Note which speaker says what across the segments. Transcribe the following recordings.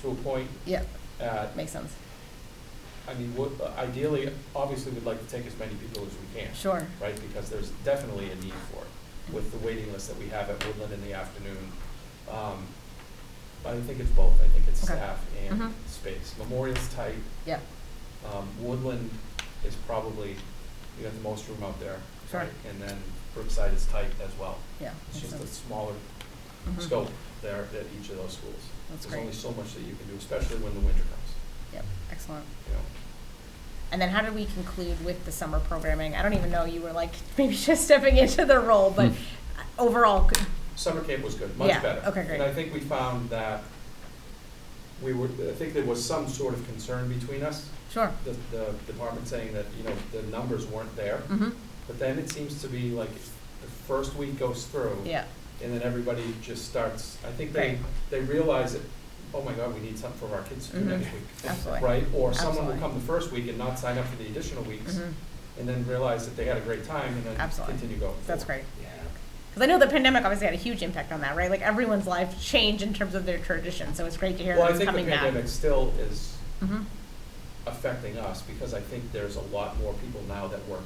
Speaker 1: to a point.
Speaker 2: Yeah.
Speaker 1: Uh,
Speaker 2: Makes sense.
Speaker 1: I mean, what, ideally, obviously, we'd like to take as many people as we can,
Speaker 2: Sure.
Speaker 1: right? Because there's definitely a need for it, with the waiting list that we have at Woodland in the afternoon. Um, I think it's both, I think it's
Speaker 2: Okay.
Speaker 1: staff and
Speaker 2: Mhm.
Speaker 1: space. Memorial's tight,
Speaker 2: Yeah.
Speaker 1: um, Woodland is probably, you have the most room out there.
Speaker 2: Sure.
Speaker 1: right? And then Brookside is tight as well.
Speaker 2: Yeah.
Speaker 1: It's
Speaker 2: makes
Speaker 1: just a
Speaker 2: sense.
Speaker 1: smaller
Speaker 2: Mhm.
Speaker 1: scope there at each of those schools.
Speaker 2: That's
Speaker 1: There's only
Speaker 2: great.
Speaker 1: so much that you can do, especially when the winter comes,
Speaker 2: Yep. Excellent.
Speaker 1: you know?
Speaker 2: And then how did we conclude with the summer programming? I don't even know. You were like maybe just stepping into the role, but overall, good.
Speaker 1: Summer camp was good, Hmm. much
Speaker 2: Yeah,
Speaker 1: better.
Speaker 2: okay, great.
Speaker 1: And I think we found that we were, I think there was some sort of concern between us,
Speaker 2: sure.
Speaker 1: the, the department saying that, you know, the numbers weren't there.
Speaker 2: Mm-hmm.
Speaker 1: But then it seems to be like the first week goes through.
Speaker 2: Yeah.
Speaker 1: And then everybody just starts, I think they,
Speaker 2: Right.
Speaker 1: they realize that, oh my God, we need something for our kids to do
Speaker 2: Mhm.
Speaker 1: next week.
Speaker 2: Absolutely.
Speaker 1: Right? Or someone will
Speaker 2: Absolutely.
Speaker 1: come the first week and not sign up for the additional weeks
Speaker 2: Mm-hmm.
Speaker 1: and then realize that they had a great time and then
Speaker 2: Absolutely.
Speaker 1: continue going.
Speaker 2: That's
Speaker 1: forward.
Speaker 2: great.
Speaker 3: Yeah.
Speaker 2: Because I know the pandemic obviously had a huge impact on that, right? Like everyone's life changed in terms of their tradition, so it's great to hear
Speaker 1: Well,
Speaker 2: that
Speaker 1: I
Speaker 2: it's
Speaker 1: think the
Speaker 2: coming
Speaker 1: pandemic still is
Speaker 2: back. hmm
Speaker 1: affecting us because I think there's a lot more people now that work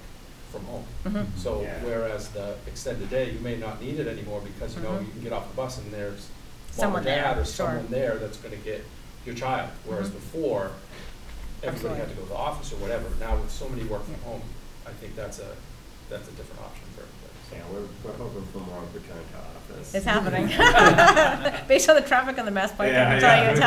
Speaker 1: from home.
Speaker 2: hmm
Speaker 1: So
Speaker 3: Yeah.
Speaker 1: whereas the extended day, you may not need it anymore because, you know,
Speaker 2: Mhm.
Speaker 1: you can get off the bus and there's mom or
Speaker 2: Someone there,
Speaker 1: dad or
Speaker 2: sure.
Speaker 1: someone there that's gonna get your child. Whereas
Speaker 2: Mhm.
Speaker 1: before, everybody had to
Speaker 2: Absolutely.
Speaker 1: go to the office or whatever. Now with so many work from
Speaker 2: Yeah.
Speaker 1: home, I think that's a, that's a different option for everybody.
Speaker 3: Yeah, we're, we're hoping for more return to office.
Speaker 2: It's happening. Based on the traffic on the Mass Pike, I
Speaker 3: Yeah,
Speaker 2: can tell you
Speaker 3: yeah.
Speaker 2: it's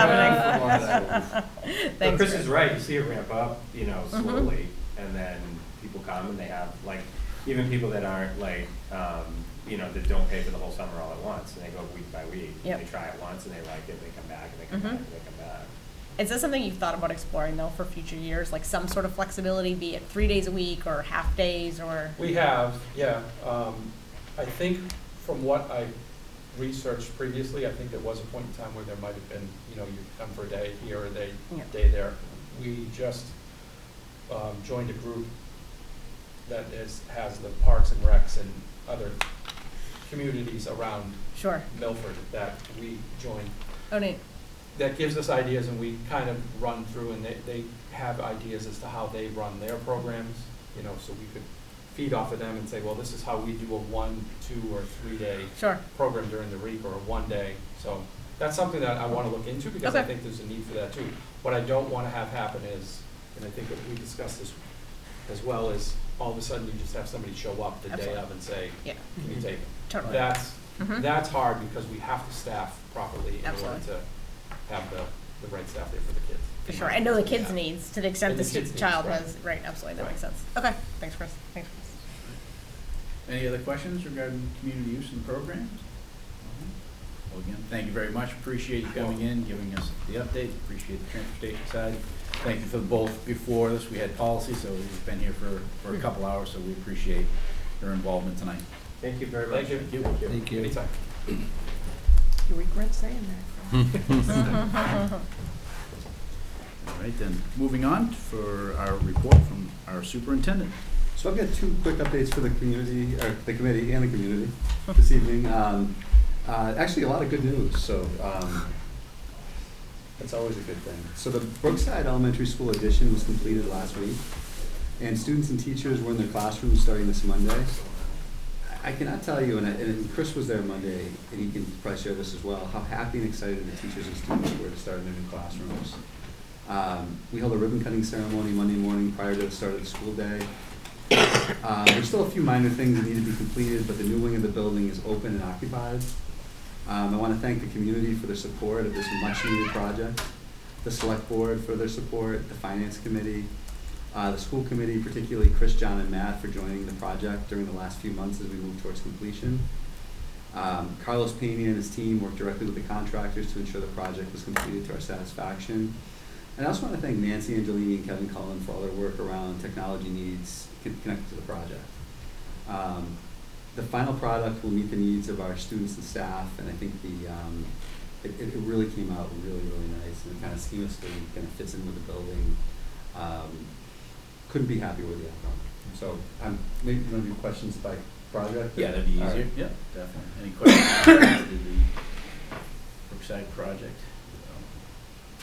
Speaker 3: Yeah.
Speaker 2: happening.
Speaker 3: But
Speaker 2: Thanks.
Speaker 3: Chris is
Speaker 2: Chris.
Speaker 3: right, you see it ramp up, you know,
Speaker 2: Mhm.
Speaker 3: slowly, and then people come and they have, like, even people that aren't like, um, you know, that don't pay for the whole summer all at once, and they go week by week. and
Speaker 2: Yep.
Speaker 3: They try it once and they like it, and they come back, and they come
Speaker 2: Mhm.
Speaker 3: back, and they come back.
Speaker 2: Is this something you've thought about exploring though for future years, like some sort of flexibility, be it three days a week or half days or?
Speaker 1: We have, yeah. Um, I think from what I researched previously, I think there was a point in time where there might have been, you know, you come for a day here, a day,
Speaker 2: Yeah.
Speaker 1: day there. We just, um, joined a group that is, has the parks and recs and other communities around
Speaker 2: Sure.
Speaker 1: Milford that we joined
Speaker 2: Oh, neat.
Speaker 1: that gives us ideas and we kind of run through and they, they have ideas as to how they run their programs, you know, so we could feed off of them and say, well, this is how we do a one, two, or three-day
Speaker 2: Sure.
Speaker 1: program during the week or a one-day. So that's something that I want to look into because I
Speaker 2: Okay.
Speaker 1: think there's a need for that too. What I don't want to have happen is, and I think that we discussed this as well, is all of a sudden you just have somebody show up the day
Speaker 2: Absolutely.
Speaker 1: of and say,
Speaker 2: Yeah,
Speaker 1: can you take it?
Speaker 2: totally.
Speaker 1: That's,
Speaker 2: Mhm.
Speaker 1: that's hard because we have to staff properly in order
Speaker 2: Absolutely.
Speaker 1: to have the, the right staff there for the kids.
Speaker 2: For sure. I know the kids'
Speaker 1: Yeah.
Speaker 2: needs to the extent
Speaker 1: And the
Speaker 2: this
Speaker 1: kids' needs,
Speaker 2: child
Speaker 1: right.
Speaker 2: has, right, absolutely, that
Speaker 1: Right.
Speaker 2: makes sense. Okay, thanks, Chris. Thanks, Chris.
Speaker 4: Any other questions regarding community use and programs? Well, again, thank you very much. Appreciate you coming in, giving us the update. Appreciate the transportation side. Thank you for both. Before this, we had policy, so we've been here for, for a couple hours, so we appreciate your involvement tonight.
Speaker 3: Thank you very much.
Speaker 1: Thank you.
Speaker 3: Thank you.
Speaker 1: Anytime.
Speaker 2: You regret saying that.
Speaker 4: All right, then, moving on for our report from our superintendent.
Speaker 5: So I've got two quick updates for the community, or the committee and the community this evening. Um, uh, Actually, a lot of good news, so um, that's always a good thing. So the Brookside Elementary School addition was completed last week, and students and teachers were in their classrooms starting this Monday. I I cannot tell you, and I- and Chris was there Monday, and he can probably share this as well, how happy and excited the teachers and students were to start in their new classrooms. Um, We held a ribbon cutting ceremony Monday morning prior to the start of the school day. Uh, There's still a few minor things that need to be completed, but the new wing of the building is open and occupied. Um, I want to thank the community for their support of this much-needed project, the select board for their support, the finance committee, uh, the school committee, particularly Chris, John, and Matt for joining the project during the last few months as we move towards completion. Um, Carlos Pena and his team worked directly with the contractors to ensure the project was completed to our satisfaction. And I also want to thank Nancy Angelini and Kevin Cullen for all their work around technology needs con- connected to the project. Um, the final product will meet the needs of our students and staff, and I think the, um, it, it it really came out really, really nice, and it kind of seamlessly kind of fits in with the building. Um, couldn't be happier with the outcome. So, um, maybe one of your questions by project?
Speaker 4: Yeah, that'd be
Speaker 5: All right.
Speaker 4: easier. Yeah, definitely. Any questions? related to the Brookside project?